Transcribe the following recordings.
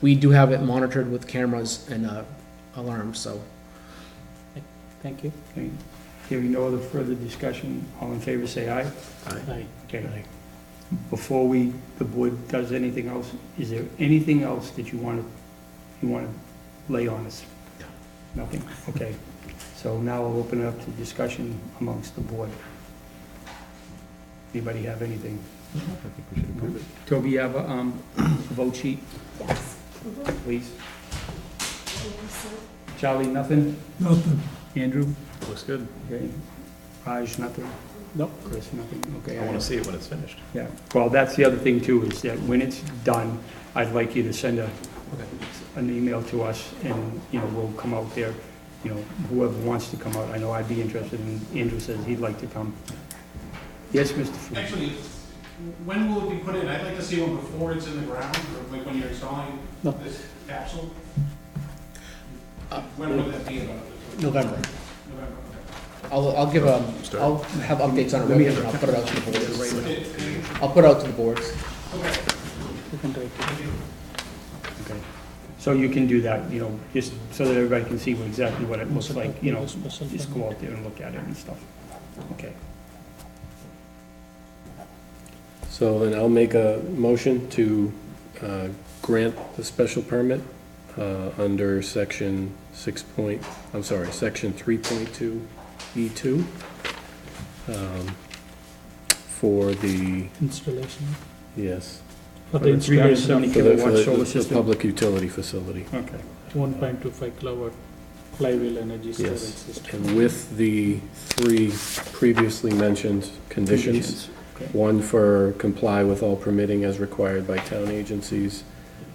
we do have it monitored with cameras and uh, alarms, so. Thank you. Okay. Hearing no other further discussion, all in favor, say aye. Aye. Okay. Before we, the board does anything else, is there anything else that you want to, you want to lay on us? Nothing? Okay. So now I'll open it up to discussion amongst the board. Anybody have anything? Toby, you have a um, a vote sheet, Yes. Mhm. please? Charlie, nothing? Nothing. Andrew? Looks good. Okay. Raj, nothing? Nope. Chris, nothing? Okay. I want to see it when it's finished. Yeah, well, that's the other thing too, is that when it's done, I'd like you to send a, an email to us and, you know, we'll come out there. You know, whoever wants to come out, I know I'd be interested and Andrew says he'd like to come. Yes, Mr. Flynn? Actually, when will it be put in? I'd like to see one before it's in the ground, or like when you're installing No. this capsule. Uh, When would that be about? November. November, I'll, I'll give, um, Start. I'll have updates on it, Let me- and I'll put it out to the boards. okay. It- it- I'll put it out to the boards. Okay. You can write it. Okay. So you can do that, you know, just so that everybody can see what- exactly what it looks like, you know, just go out there and look at it and stuff. Okay. So then I'll make a motion to uh, grant the special permit uh, under section six point, I'm sorry, section three point two E two um, for the, Installation yes, for For the the installation 370 of for Kilowatt the, for the- solar the system. public utility facility. Okay. one point two five kilowatt flywheel energy storage Yes. system. And with the three previously mentioned conditions, One for comply with all permitting as required by town agencies.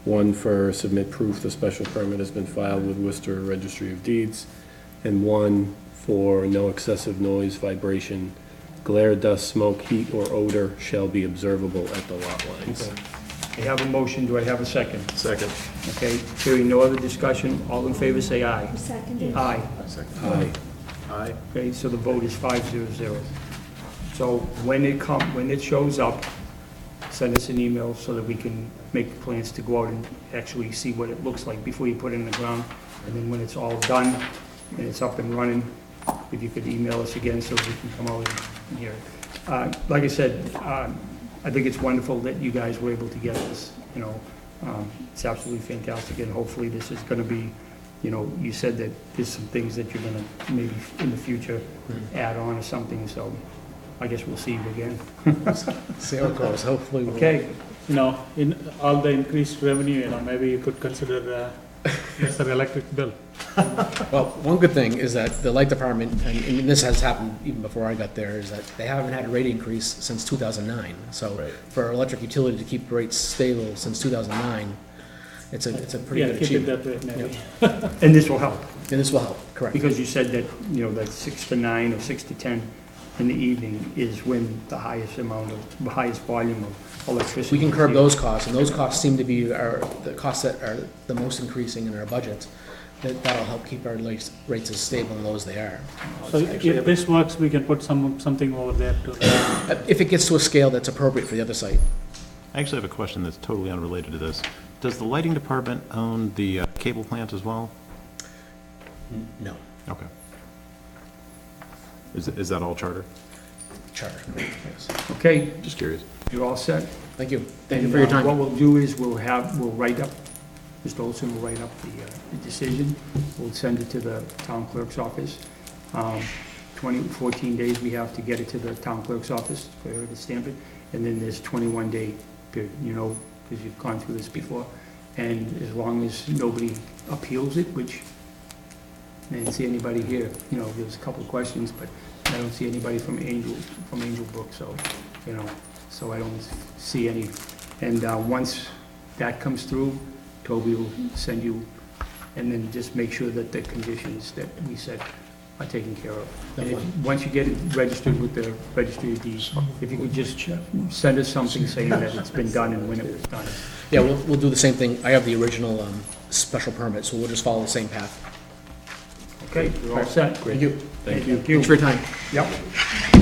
One for submit proof the special permit has been filed with Worcester Registry of Deeds. And one for no excessive noise, vibration, glare, dust, smoke, heat, or odor shall be observable at the lot lines. Okay. I have a motion, do I have a second? Second. Okay, hearing no other discussion, all in favor say aye. Who seconded? Aye. Second. Aye. Aye. Okay, so the vote is five zero zero. So when it come, when it shows up, send us an email so that we can make the plans to go out and actually see what it looks like before you put it in the ground. And then when it's all done and it's up and running, if you could email us again so we can come out and hear it. Uh, Like I said, um, I think it's wonderful that you guys were able to get this, you know. Um, It's absolutely fantastic and hopefully this is gonna be, you know, you said that there's some things that you're gonna maybe in the future Hmm. add on or something, so I guess we'll see you again. See how it goes, hopefully we'll. Okay, You know, in all the increased revenue, you know, maybe you could consider, uh, yes, an electric bill. Well, one good thing is that the light department, and, and this has happened even before I got there, is that they haven't had a rate increase since two thousand nine. So Right. for electric utility to keep rates stable since two thousand nine, it's a, it's a pretty good Yeah, keep it achievement. that way, maybe. and this will help, And this will help, correct. because you said that, you know, that six to nine or six to 10 in the evening is when the highest amount of, the highest volume of electricity. We can curb is those costs, and those costs seem to be our, the costs that are the most increasing in our budget. That, that'll help keep our rates, rates as stable and low as they are. So if this works, we can put some, something over there to, Uh, If it gets to a scale that's appropriate for the other site, I actually have a question that's totally unrelated to this. Does the lighting department own the uh, cable plant as well? no, Okay. Is, is that all charter? charter. yes. used. Okay, Just curious. you're all set. Thank you, thank you for your And, uh, What time. we'll do is we'll have, we'll write up, Mr. Olson will write up the, uh, the decision. We'll send it to the town clerk's office. Um, 20, 14 days we have to get it to the town clerk's office for her to stamp it. And then there's 21 day period, you know, because you've gone through this before. And as long as nobody appeals it, which I didn't see anybody here, you know, there's a couple of questions, but I don't see anybody from Angel, from Angel Brook, so, you know, so I don't see any and uh, once that comes through, Toby will send you, and then just make sure that the conditions that we set are taken care of. And if- Once you get it registered with the registry of deeds, if you could just send us something saying that it's been done and when it was done. Yeah, we'll, we'll do the same thing. I have the original, um, special permit, so we'll just follow the same path. Okay, you're all set. Thank you. Thank you. Thanks for your time. Yep.